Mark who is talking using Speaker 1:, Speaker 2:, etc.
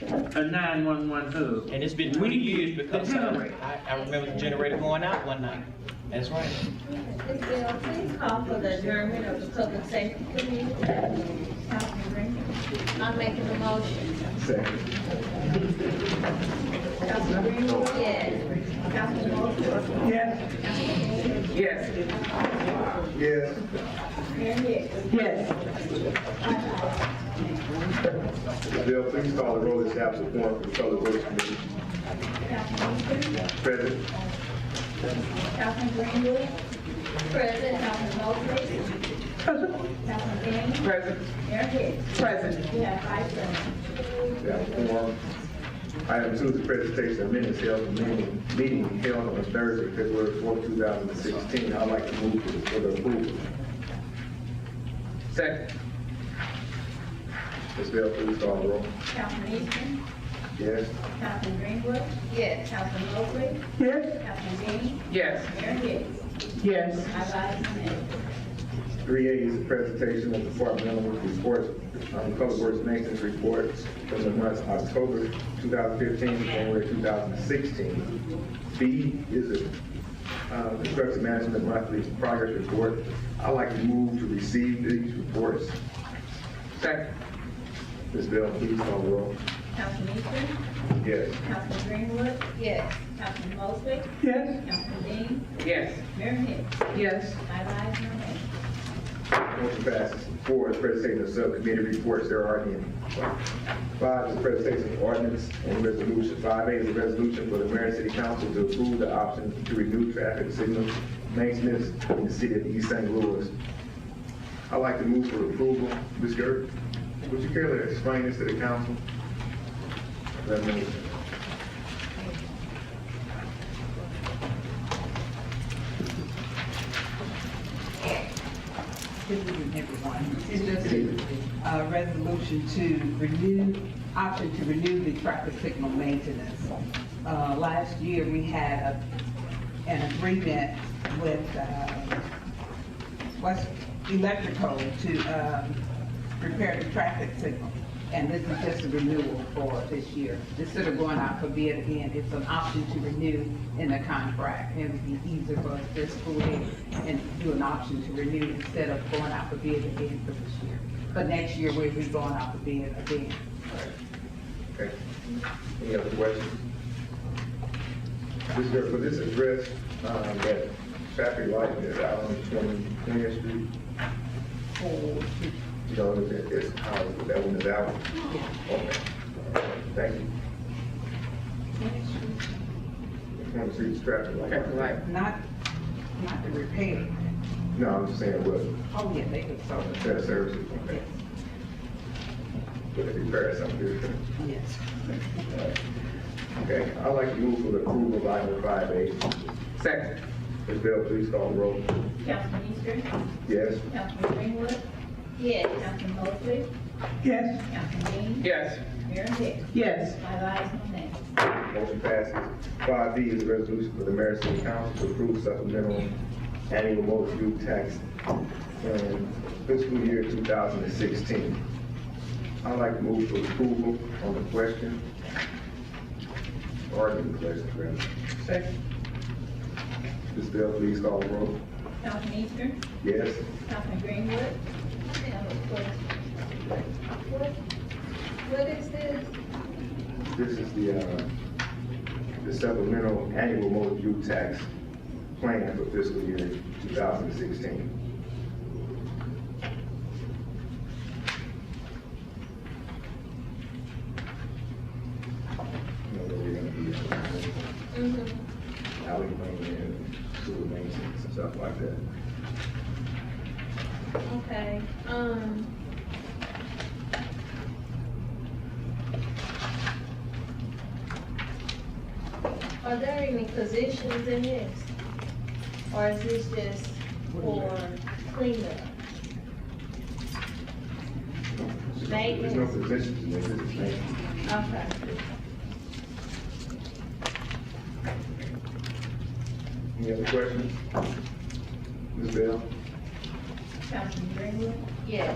Speaker 1: a nine-one-one hub.
Speaker 2: And it's been twenty years because uh, I, I remember the generator going out one night. That's right.
Speaker 3: Ms. Gill, please call for the adjournment of the public safety committee. I'm making a motion.
Speaker 4: Councilman Greenwood,
Speaker 3: Yes.
Speaker 4: Councilman Mosley,
Speaker 1: Yes. Yes. Yes.
Speaker 4: and yes.
Speaker 1: Yes.
Speaker 5: Bill, please call the roll as absent one from the Solid Waste Committee.
Speaker 4: Councilman Easter,
Speaker 5: Present.
Speaker 4: Councilman Greenwood,
Speaker 3: Present.
Speaker 4: Councilman Mosley, Councilman Dean,
Speaker 1: Present.
Speaker 4: Mayor Hicks.
Speaker 1: Present.
Speaker 4: We have five present.
Speaker 5: We have a quorum. Item two is the presentation of minutes held in meeting, meeting held on Thursday, February fourth, two thousand and sixteen. I'd like to move to- for the approval.
Speaker 1: Second.
Speaker 5: Ms. Bell, please call the roll.
Speaker 4: Councilman Easter,
Speaker 5: Yes.
Speaker 4: Councilman Greenwood,
Speaker 3: Yes.
Speaker 4: Councilman Mosley,
Speaker 1: Yes.
Speaker 4: Councilman Dean,
Speaker 1: Yes.
Speaker 4: Mayor Hicks.
Speaker 1: Yes.
Speaker 4: Five ayes, no nays.
Speaker 5: Three A is the presentation of departmental reports, um, Public Works Maintenance Report from the months October two thousand fifteen to January two thousand sixteen. B is a, uh, Construction Management Monthly Progress Report. I'd like to move to receive these reports. Second. Ms. Bell, please call the roll.
Speaker 4: Councilman Easter,
Speaker 5: Yes.
Speaker 4: Councilman Greenwood,
Speaker 3: Yes.
Speaker 4: Councilman Mosley,
Speaker 1: Yes.
Speaker 4: Councilman Dean,
Speaker 1: Yes.
Speaker 4: Mayor Hicks.
Speaker 1: Yes.
Speaker 4: Five ayes, no nays.
Speaker 5: Motion passes. Four is presentation of subcommittee reports, there are any. Five is presentation of ordinance and resolution. Five A is a resolution for the mayor and city council to approve the option to renew traffic signal maintenance in the city of East St. Louis. I'd like to move for approval. Ms. Gerb, would you care to explain this to the council? Let me-
Speaker 6: Good evening, everyone. It's just a uh, resolution to renew, option to renew the traffic signal maintenance. Uh, Last year, we had a- an agreement with uh, West Electrical to um, repair the traffic signal, and this is just a renewal for this year. Instead of going out for bid again, it's an option to renew in the contract. It would be easier for us this school year and do an option to renew instead of going out for bid again for this year. But next year, we'll be going out for bid again.
Speaker 5: Okay. Any other questions? Ms. Gerb, for this address, um, that traffic light that's out on Twenty Twentieth Street,
Speaker 6: For,
Speaker 5: You know, that is how that one is out. Okay. Thank you. Want to see the traffic light?
Speaker 1: right.
Speaker 6: not, not the repair.
Speaker 5: No, I'm just saying, well,
Speaker 6: Oh, yeah, they could sell it.
Speaker 5: that services, okay,
Speaker 6: Yes,
Speaker 5: would it be fair, something?
Speaker 6: yes.
Speaker 5: Okay, I'd like to move for the approval of item five A. Second. Ms. Bell, please call the roll.
Speaker 4: Councilman Easter,
Speaker 5: Yes?
Speaker 4: Councilman Greenwood,
Speaker 3: Yes.
Speaker 4: Councilman Mosley,
Speaker 1: Yes.
Speaker 4: Councilman Dean,
Speaker 1: Yes.
Speaker 4: Mayor Hicks.
Speaker 1: Yes.
Speaker 4: Five ayes, no nays.
Speaker 5: Motion passes. Five B is a resolution for the mayor and city council to approve supplemental annual motor fuel tax in fiscal year two thousand and sixteen. I'd like to move for approval on the question. Arguing question, rather.
Speaker 1: Second.
Speaker 5: Ms. Bell, please call the roll.
Speaker 4: Councilman Easter,
Speaker 5: Yes?
Speaker 4: Councilman Greenwood,
Speaker 3: I have a question. What, what is this?
Speaker 5: This is the, uh, the supplemental annual motor fuel tax plan for fiscal year two thousand and sixteen. You know, we're gonna be, uh,
Speaker 3: Mm-hmm.
Speaker 5: alley maintenance, sewer maintenance, and stuff like that.
Speaker 3: Okay, um. Are there any positions in this? Or is this just for cleanup?
Speaker 5: There's no positions in this, this is maintenance.
Speaker 3: Okay.
Speaker 5: Any other questions? Ms. Bell?
Speaker 4: Councilman Greenwood,
Speaker 3: Yes.